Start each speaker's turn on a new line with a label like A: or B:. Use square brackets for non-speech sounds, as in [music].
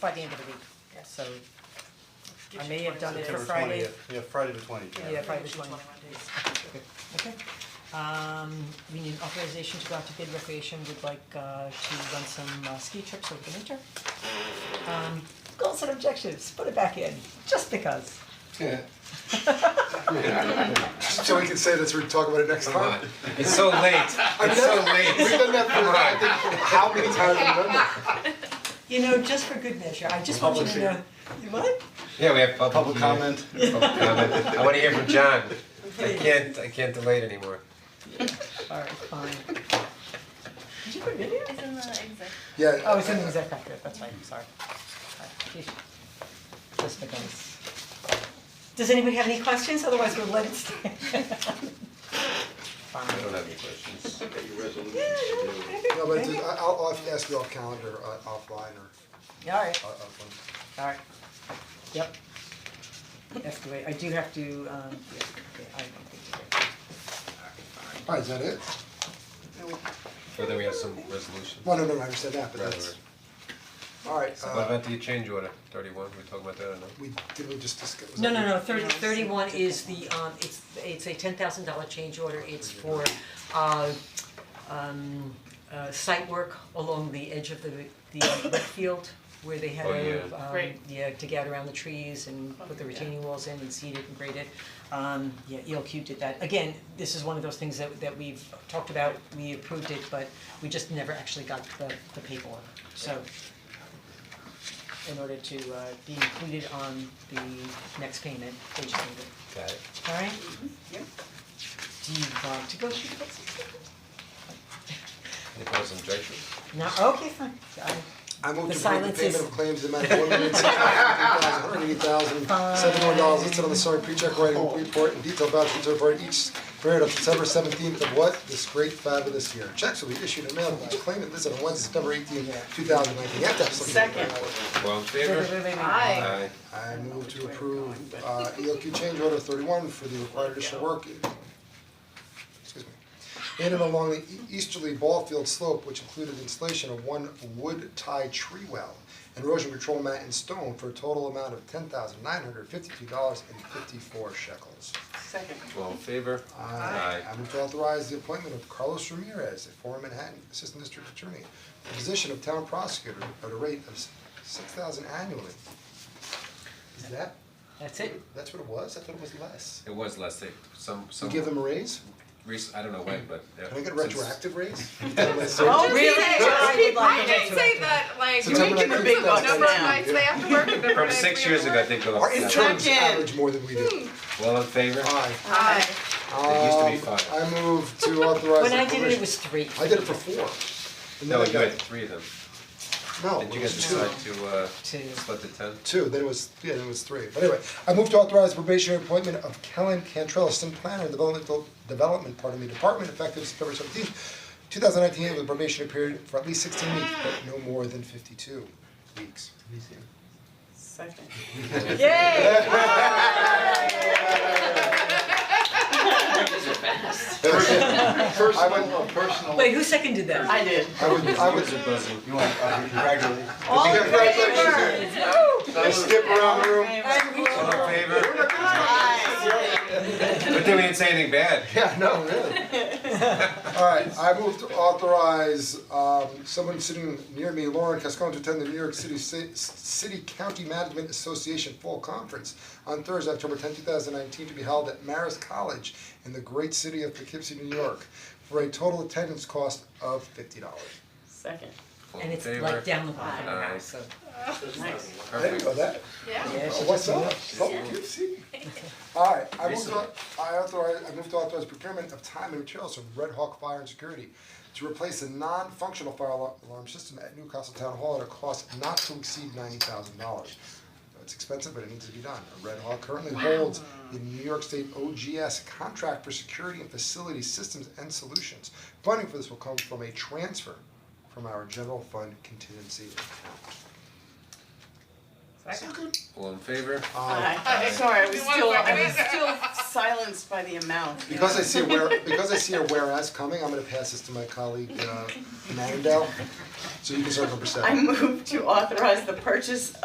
A: by the end of the week, so I may have done it for
B: September
A: Friday,
B: twentieth, yeah, Friday the twentieth, yeah.
A: yeah, Friday the twentieth. Okay, um, we need authorization to go out to bid recreation, would like uh to run some uh, ski trips over the winter. Um, goals and objectives, put it back in, just because.
C: So we can say this, we talk about it next time.
D: It's so late, it's so
C: We've
D: late.
C: done that for, I think, how many times we
A: You know, just for good measure, I just want you to know, you what?
D: Yeah, we have public.
B: Public
D: hearing.
B: comment,
D: Public comment. [laughs] I wanna hear from John. I can't, I can't delay it anymore.
A: Alright, fine. Did you put video?
E: It's in the exec.
C: Yeah.
A: Oh, it's in the exec record, that's right, sorry. Alright, phew. Just because. Does anybody have any questions, otherwise we'll let it stay.
D: I
A: Fine.
D: don't have any questions.
A: Yeah, no, maybe,
C: No, but
A: maybe.
C: it's- uh, I- I'll, I'll have to ask you off calendar, uh, offline or,
A: Yeah, Alright,
C: uh, offline.
A: alright, yep. That's the way, I do have to, um, yeah, okay, I don't think you
C: All right, Oh, is that it?
D: Well, then we have some resolution.
C: Well, no, no, no, I understand that, but
D: Right,
C: that's,
D: right.
C: all right,
D: What
C: uh,
D: about the change order, thirty-one, we talking about that or no?
C: we, did we just discuss? was
A: No,
C: that
A: no,
C: you?
A: no, thirty, thirty-one is the, um, it's, it's a ten thousand dollar change order, it's for, uh, um, uh, site work along the edge of the, the wet field where they had
D: Oh,
A: a,
D: yeah.
A: um,
E: Right.
A: yeah, to get around the trees and put the retaining walls in and seed it and grade it. Um, yeah, ELQ did that, again, this is one of those things that, that we've talked about, we approved it, but we just never actually got the, the paperwork, so in order to uh be included on the next payment, they just need it,
D: Got it.
A: alright? Do you want to go through the books?
D: Any opposed objections?
A: No, okay, fine, I,
C: I move
A: The
C: to approve the
A: silence
C: payment
A: is-
C: of claims in the amount of one million six hundred fifty thousand, one hundred eighty thousand, seven more dollars listed on the summary pre-check writing report and detailed voucher to report each period of September seventeenth of what this great fabulous year. Checks will be issued and mailed to each claimant listed on Wednesday, September eighteenth, two thousand nineteen. You have to have something.
D: Well, in
A: wait, wait,
D: favor?
A: wait, wait, wait.
D: Aye.
C: I move to approve uh ELQ change order thirty-one for the required additional work. Excuse me. In and along the e- easterly ball field slope, which included installation of one wood tie tree well and erosion control mat and stone for a total amount of ten thousand nine hundred fifty-two dollars and fifty-four shekels.
D: Well, in favor?
C: I move to authorize the appointment of Carlos Ramirez, a former Manhattan Assistant District Attorney, to the position of town prosecutor at a rate of six thousand annually. Is that
A: That's it,
C: that's what it was? I thought it was less.
D: It was less, they, some,
C: You
D: some,
C: give them a raise?
D: recent, I don't know when, but.
C: Can I get a
D: since-
C: retroactive raise?
D: [laughs]
A: Oh,
C: Oh,
A: really? I would like
E: I did
A: to-
E: say that, like,
C: September
E: we can
C: 19th,
E: pick
C: that's
E: a number of
C: next
E: nights
C: year.
E: they have to work, and number of
D: From
E: nights
D: six
E: we
D: years
E: have
D: ago, I
E: to
D: think, go up.
C: Our Uh,
D: to that.
C: interns average more than we
A: Hmm.
C: do.
D: Well, in favor?
C: Aye.
E: work. Aye.
D: It used to be
C: Um,
D: five.
C: I move to authorize
A: when
C: the
A: I did it, it
C: commission-
A: was three.
C: I did it for four. And
D: No,
C: then I
D: you had
C: got-
D: three of them.
C: No,
D: Did
C: Oh, it
D: you
C: was
D: guys
C: two.
D: decide to, uh,
A: Two.
D: split the ten?
C: two, then it was, yeah, then it was three, but anyway, I move to authorize probationary appointment of Kellen Cantrell, assistant planner, developmental, development, pardon me, department, effective September seventeenth, two thousand nineteen, with a probationary period for at least sixteen weeks, but no more than fifty-two weeks.
F: Personal, a personal.
A: Wait, who seconded that?
G: I did.
C: I would, I would,
F: You want, uh, congratulations.
E: All in
C: Congratulations.
E: favor?
C: I skip around the room.
D: All in favor? But then we didn't say anything bad.
C: Yeah, no, really. Alright, I move to authorize um someone sitting near me, Lauren Cascone, to attend the New York City Ci- City County Management Association Fall Conference on Thursday, October tenth, two thousand nineteen, to be held at Marist College in the great city of Poughkeepsie, New York, for a total attendance cost of fifty dollars.
G: Second.
D: All
A: And
D: in
A: it's
D: favor?
A: like down the bottom now,
D: Aye.
A: so,
G: Nice.
C: There you
D: Perfect.
C: go, that,
E: Yeah.
A: yeah,
C: oh,
A: she
C: what's
A: just-
C: up? Poughkeepsie? Alright, I move
D: Recently.
C: to, I authorize, I move to authorize procurement of time and materials from Red Hawk Fire and Security to replace a non-functional fire alar- alarm system at Newcastle Town Hall at a cost not to exceed ninety thousand dollars. It's expensive, but it needs to be done. Red Hawk currently holds the New York State OGS contract for security and facility systems and solutions. Funding for this will come from a transfer from our general fund contingency account.
E: Second.
D: All in favor?
G: Aye. Sorry, I was still, I was still silenced by the amount. you
C: Because
G: know.
C: I see a where, because I see a whereas coming, I'm gonna pass this to my colleague, uh, Mandel, so you can start number seven.
G: I moved to authorize the purchase